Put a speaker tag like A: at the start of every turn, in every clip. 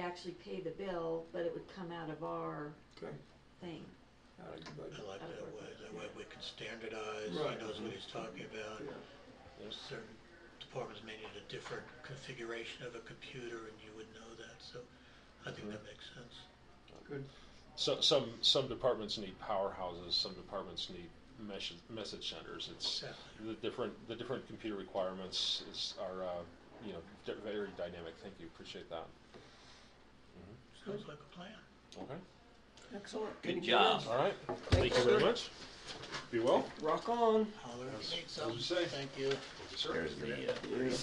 A: actually pay the bill, but it would come out of our
B: Okay,
A: thing.
B: out of your
C: I
B: budget.
C: like that way, that way we can standardize, he
B: Right.
C: knows what he's talking about.
B: Yeah.
C: Certain departments may need a different configuration of a computer and you would know that, so I think that makes sense.
B: Good.
D: So, some some departments need powerhouses. Some departments need mesh, message centers. It's
C: Exactly.
D: the different the different computer requirements is are uh, you know di- very dynamic. Thank you. Appreciate that.
C: Sounds like a plan.
D: Okay.
E: Excellent.
F: Good
E: Thank you.
F: job.
D: All right.
E: Thank
D: Thank you very
E: you.
D: much. Be well.
E: Rock on.
C: Holler if you need
D: as you
C: something.
D: say.
C: Thank you.
D: Thank you,
F: There's the, uh,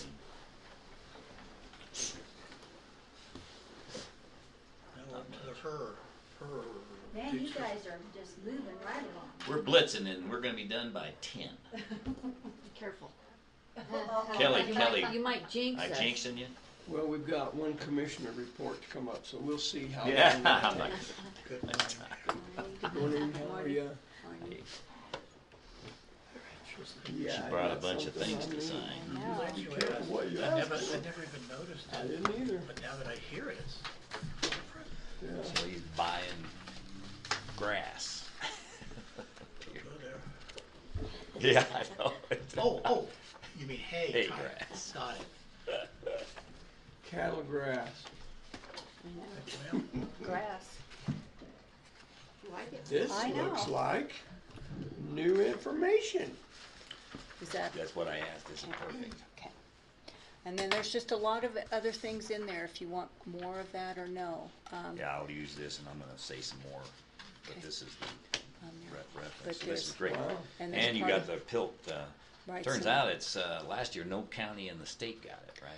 C: Now on to the her, her.
G: Man, you guys are just moving right along.
F: we're blitzing and we're gonna be done by ten.
A: Be careful.
H: Uh-huh.
F: Kelly,
A: You might-
F: Kelly,
A: You might jinx
F: I
A: us.
F: jinxing you?
B: Well, we've got one commissioner report to come up, so we'll see how.
F: Yeah.
B: long
F: I'm
B: that
F: like,
B: takes.
C: Good morning.
B: Good Morning, how are ya?
F: hey,
B: Yeah,
F: She
B: I
F: brought a
B: got
F: bunch of
B: something
F: things
B: on
F: to
B: me.
F: sign.
A: No.
C: Glad you
B: Careful
C: asked.
B: what you
C: I
B: ask
C: never,
B: for.
C: I never even noticed
B: I
C: it,
B: didn't either.
C: but now that I hear it, it's
B: Yeah.
F: So he's buying grass.
C: go there.
F: Yeah, I know.
C: Oh, oh, you mean hay.
F: Hay
C: Got it.
F: grass.
C: Got it.
B: Cattle grass.
C: Well,
A: Grass. Like it?
B: This
G: I know.
B: looks like new information.
H: Is that,
F: That's what I asked, is it perfect?
H: okay. And then there's just a lot of other things in there, if you want more of that or no. um,
F: Yeah, I'll use this and I'm gonna say some more, but
H: Okay.
F: this is the
H: on there.
F: re-
H: But
F: reference, so this
H: there's-
F: is great.
B: Wow.
H: And there's
F: And you
H: part
F: got
H: of-
F: the PILT, uh,
H: Right,
F: turns
H: so-
F: out it's, uh, last year, no county in the state got it, right?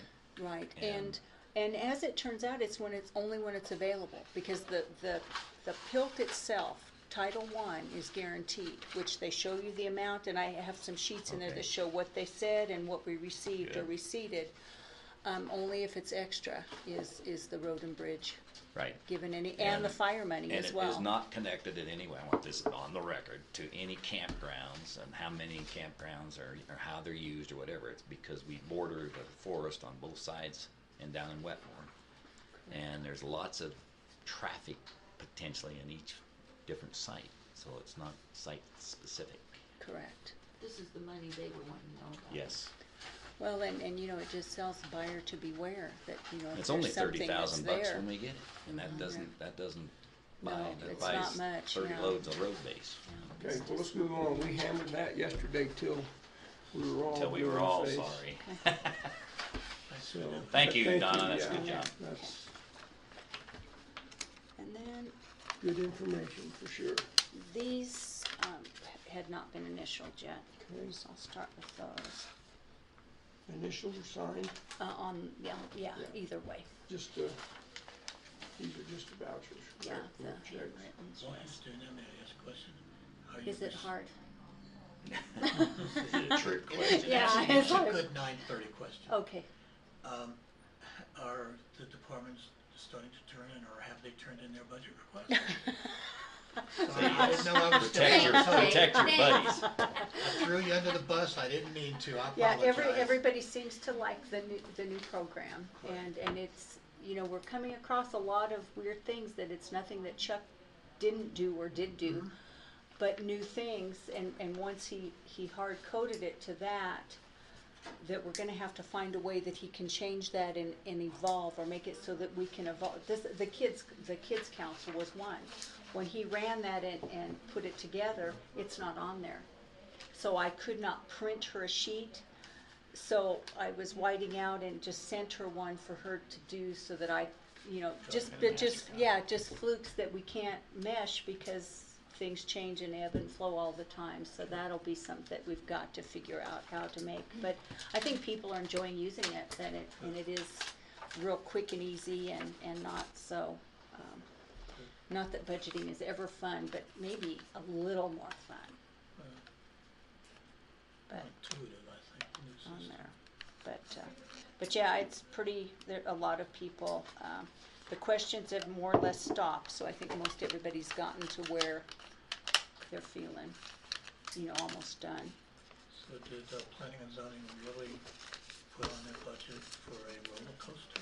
H: Right,
F: and-
H: and, and as it turns out, it's when it's, only when it's available, because the, the, the PILT itself, Title I is guaranteed, which they show you the amount, and I have some sheets in there
F: Okay.
H: that show what they said and what we received or
F: Good.
H: receded. Um, only if it's extra is, is the road and bridge
F: Right.
H: given any,
F: And-
H: and the fire money
F: And
H: as
F: it
H: well.
F: is not connected in any way, I want this on the record, to any campgrounds and how many campgrounds are, or how they're used or whatever. It's because we border the forest on both sides and down in Wetmore. And there's lots of traffic potentially in each different site, so it's not site specific.
H: Correct.
A: This is the money they would want to know about.
F: Yes.
H: Well, and, and you know, it just tells the buyer to beware that, you know, if
F: It's only
H: there's something
F: thirty
H: that's
F: thousand bucks
H: there. Oh,
F: when we get it, and that doesn't, that doesn't
H: No,
F: buy, that
H: it's not
F: buys
H: much,
F: thirty
H: no.
F: loads of road base.
B: Okay, well, let's move on. We hammered that yesterday till we were all
F: Till we
B: blue in
F: were
B: the
F: all
B: face.
F: sorry.
C: thanks for
B: So,
C: that.
F: Thank
B: but
F: you, Donna. That's a good
B: yeah.
F: job.
B: That's
H: And then
B: good information for sure.
H: these, um, had not been initialed yet,
B: Okay.
H: so I'll start with those.
B: Initial sign,
H: Uh, on, yeah, yeah,
B: Yeah.
H: either way,
B: just, uh, these are just vouchers.
H: yeah,
B: right?
H: the
B: Not checks.
H: handwritten's
C: While I'm
H: just-
C: doing that, may I ask a question? Are you
H: Is it
C: rec-
H: hard?
F: Is it a trick question?
C: It's
H: Yeah,
C: actually-
H: it's
C: it's a
H: hard. Oh.
C: good nine thirty question.
H: Okay,
C: Um, are the departments starting to turn in, or have they turned in their budget requests? Sorry, I didn't know I was
F: Protect
C: stepping
F: your,
C: on toes.
F: protect your buddies.
C: I threw you under the bus, I didn't mean to, I
H: yeah,
C: apologize.
H: every, everybody seems to like the new, the new program,
C: Right.
H: and, and it's, you know, we're coming across a lot of weird things that it's nothing that Chuck didn't do or did do.
C: Mm-hmm.
H: but new things and, and once he, he hard coded it to that that we're gonna have to find a way that he can change that and, and evolve or make it so that we can evolve this the kids the kids council was one when he ran that and, and put it together it's not on there so i could not print her a sheet so i was whiting out and just sent her one for her to do so that i you know just
C: kinda
H: that
C: match
H: just
C: it up.
H: yeah yeah, just flukes that we can't mesh because things change and ebb and flow all the time. So that'll be something that we've got to figure out how to make. But I think people are enjoying using it, and it, and it is real quick and easy and, and not so, um, not that budgeting is ever fun, but maybe a little more fun. But
C: Uh, Intuitive, I think, in this
H: on
C: system.
H: there. But, uh, but yeah, it's pretty, there, a lot of people, um, the questions have more or less stopped, so I think most everybody's gotten to where they're feeling, you know, almost done.
C: So did uh, planning and zoning really put on their budget for a roller coaster?